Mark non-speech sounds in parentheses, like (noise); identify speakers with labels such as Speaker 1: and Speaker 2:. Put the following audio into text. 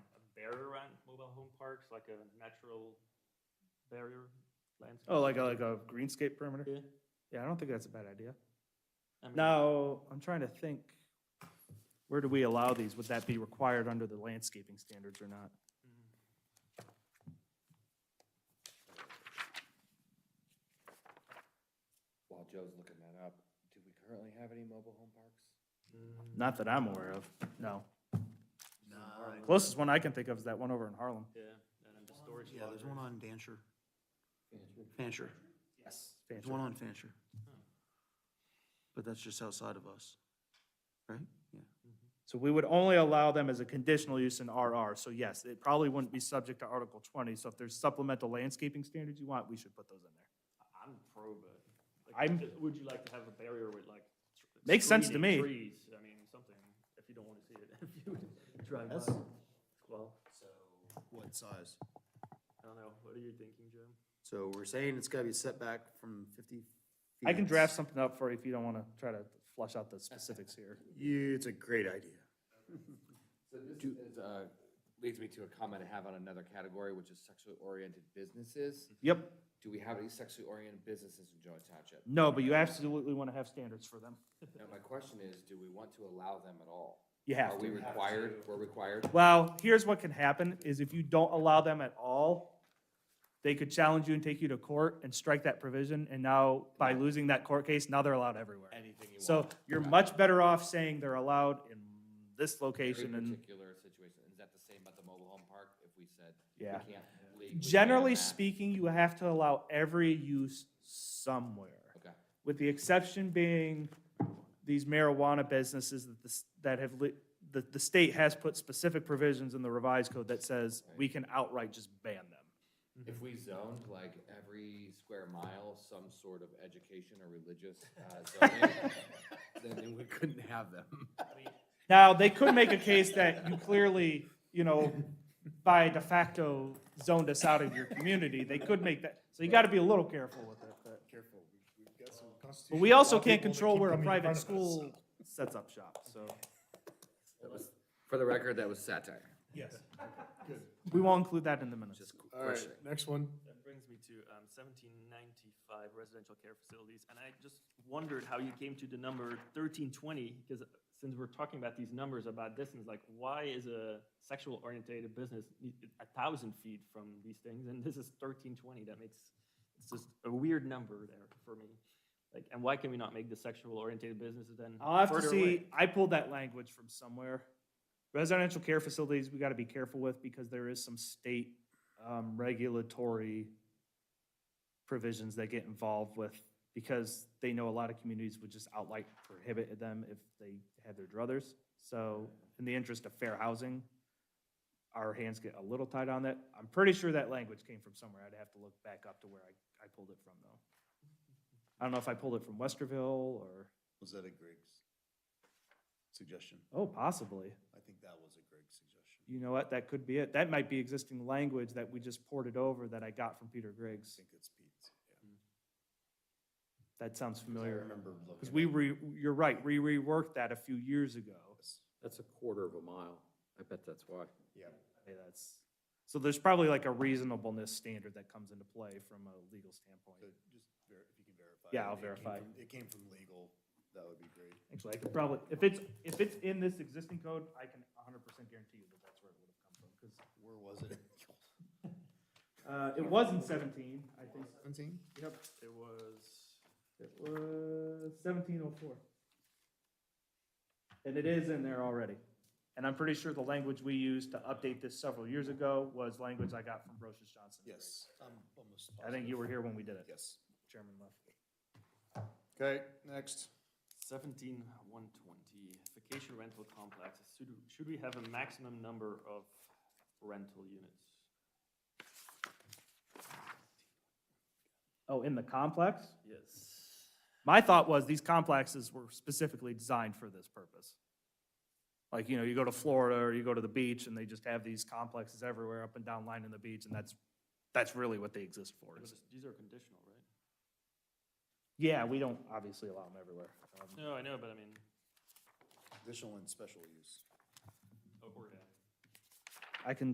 Speaker 1: parks, like a natural barrier landscape?
Speaker 2: Oh, like a, like a greenscape perimeter?
Speaker 1: Yeah.
Speaker 2: Yeah, I don't think that's a bad idea.
Speaker 1: I mean,
Speaker 2: Now, I'm trying to think, where do we allow these? Would that be required under the landscaping standards or not?
Speaker 3: While Joe's looking that up, do we currently have any mobile home parks?
Speaker 1: mm,
Speaker 2: Not that I'm aware of, no.
Speaker 4: Nah, I-
Speaker 2: Closest one I can think of is that one over in Harlem.
Speaker 1: Yeah, and then the storage.
Speaker 4: Yeah, there's one
Speaker 1: lockers.
Speaker 4: on Dancher. Fancher.
Speaker 2: Yes.
Speaker 4: There's one on Fancher. But that's just outside of us, right? Yeah.
Speaker 2: So we would only allow them as a conditional use in RR, so yes, it probably wouldn't be subject to Article twenty, so if there's supplemental landscaping standards you want, we should put those in there.
Speaker 1: I'm pro, but. like,
Speaker 2: I'm-
Speaker 1: just- Would you like to have a barrier with like? tr-
Speaker 2: Makes sense to
Speaker 1: screening,
Speaker 2: me.
Speaker 1: Trees, I mean, something, if you don't want to see it, (laughs) if you drive by. Well,
Speaker 3: So. What size?
Speaker 1: I don't know, what are you thinking, Jim?
Speaker 3: So we're saying it's gotta be setback from fifty?
Speaker 2: I can
Speaker 3: feet.
Speaker 2: draft something up for you if you don't wanna try to flush out the specifics here.
Speaker 3: You, it's a great idea.
Speaker 5: So this is, uh, leads me to a comment I have on another category, which is sexually oriented businesses.
Speaker 3: Hmm.
Speaker 2: Yep,
Speaker 5: Do we have any sexually oriented businesses in Joy Township?
Speaker 2: no, but you absolutely wanna have standards for them.
Speaker 5: Now, my question is, do we want to allow them at all?
Speaker 2: You have
Speaker 5: Are we
Speaker 2: to.
Speaker 5: required, we're required?
Speaker 2: Well, here's what can happen, is if you don't allow them at all, they could challenge you and take you to court and strike that provision, and now, by losing that court case, now they're allowed everywhere.
Speaker 5: Anything you want?
Speaker 2: So you're much better off saying they're allowed in this
Speaker 5: Every
Speaker 2: location and
Speaker 5: particular situation, is that the same about the mobile home park, if we said? we
Speaker 2: Yeah.
Speaker 5: can't legally ban
Speaker 2: generally
Speaker 5: that?
Speaker 2: speaking, you have to allow every use somewhere.
Speaker 5: Okay,
Speaker 2: With the exception being these marijuana businesses that this, that have lit, the, the state has put specific provisions in the revised code that says we can outright just ban them.
Speaker 5: if we zoned like every square mile, some sort of education or religious, uh, zoning,
Speaker 6: (laughs)
Speaker 5: then we couldn't have them.
Speaker 2: Now, they could make a case that you clearly, you know, by de facto zoned us out of your community. They could make that, so you gotta be a little careful with it, but.
Speaker 7: Careful, we've, we've got some
Speaker 2: But
Speaker 7: constitutional.
Speaker 2: we also
Speaker 7: law
Speaker 2: can't
Speaker 7: people that
Speaker 2: control
Speaker 7: keep
Speaker 2: where a
Speaker 7: coming in
Speaker 2: private
Speaker 7: front of us, so.
Speaker 2: school sets up shop, so.
Speaker 5: For the record, that was satire.
Speaker 2: Yes. We won't include that in the minutes.
Speaker 7: All right, next one.
Speaker 1: That brings me to um, 1795 residential care facilities, and I just wondered how you came to the number 1320, because since we're talking about these numbers about distance, like, why is a sexual orientated business need- a 1,000 feet from these things, and this is 1320? That makes, it's just a weird number there for me. Like, and why can we not make the sexual orientated businesses then
Speaker 2: I'll have to
Speaker 1: further
Speaker 2: see,
Speaker 1: away?
Speaker 2: I pulled that language from somewhere. Residential care facilities, we gotta be careful with because there is some state, um, regulatory provisions that get involved with, because they know a lot of communities would just outright prohibit them if they had their druthers. So in the interest of fair housing, our hands get a little tied on that. I'm pretty sure that language came from somewhere. I'd have to look back up to where I, I pulled it from though. I don't know if I pulled it from Westerville or.
Speaker 7: Was that a Griggs suggestion?
Speaker 2: Oh, possibly.
Speaker 7: I think that was a Griggs suggestion.
Speaker 2: You know what? That could be it. That might be existing language that we just ported over that I got from Peter
Speaker 7: I
Speaker 2: Griggs.
Speaker 7: think it's Pete's, yeah.
Speaker 2: That sounds
Speaker 7: I
Speaker 2: familiar.
Speaker 7: remember looking.
Speaker 2: Because we re, you're right, we reworked that a few years ago.
Speaker 6: That's a quarter of a mile. I bet that's why.
Speaker 7: Yeah,
Speaker 2: Hey, that's, so there's probably like a reasonableness standard that comes into play from a legal
Speaker 7: so
Speaker 2: standpoint.
Speaker 7: just ver, if you can verify.
Speaker 2: Yeah,
Speaker 7: it,
Speaker 2: I'll
Speaker 7: it came
Speaker 2: verify.
Speaker 7: from- It came from legal, that would be great.
Speaker 2: Actually, I could probably, if it's, if it's in this existing code, I can hundred percent guarantee you that that's where it would have come from, because,
Speaker 7: Where was it?
Speaker 2: uh, it was in seventeen, I think.
Speaker 7: Seventeen?
Speaker 2: Yep,
Speaker 1: It was,
Speaker 2: it was seventeen oh four. And it is in there already. And I'm pretty sure the language we used to update this several years ago was language I got from Brochus Johnson.
Speaker 7: Yes, I'm almost
Speaker 2: I think you
Speaker 7: positive.
Speaker 2: were here when we did it.
Speaker 7: Yes.
Speaker 2: Chairman left.
Speaker 7: Okay, next.
Speaker 1: Seventeen one twenty, vacation rental complexes, should, should we have a maximum number of rental units?
Speaker 2: Oh, in the complex?
Speaker 1: Yes.
Speaker 2: My thought was these complexes were specifically designed for this purpose. Like, you know, you go to Florida or you go to the beach and they just have these complexes everywhere up and down lining the beach and that's, that's really what they exist for.
Speaker 1: But
Speaker 2: is-
Speaker 1: this- These are conditional, right?
Speaker 2: Yeah, we don't obviously allow them everywhere. Um,
Speaker 1: No, I know, but I mean,
Speaker 7: Additional and special use.
Speaker 1: oh, or, yeah.
Speaker 2: I can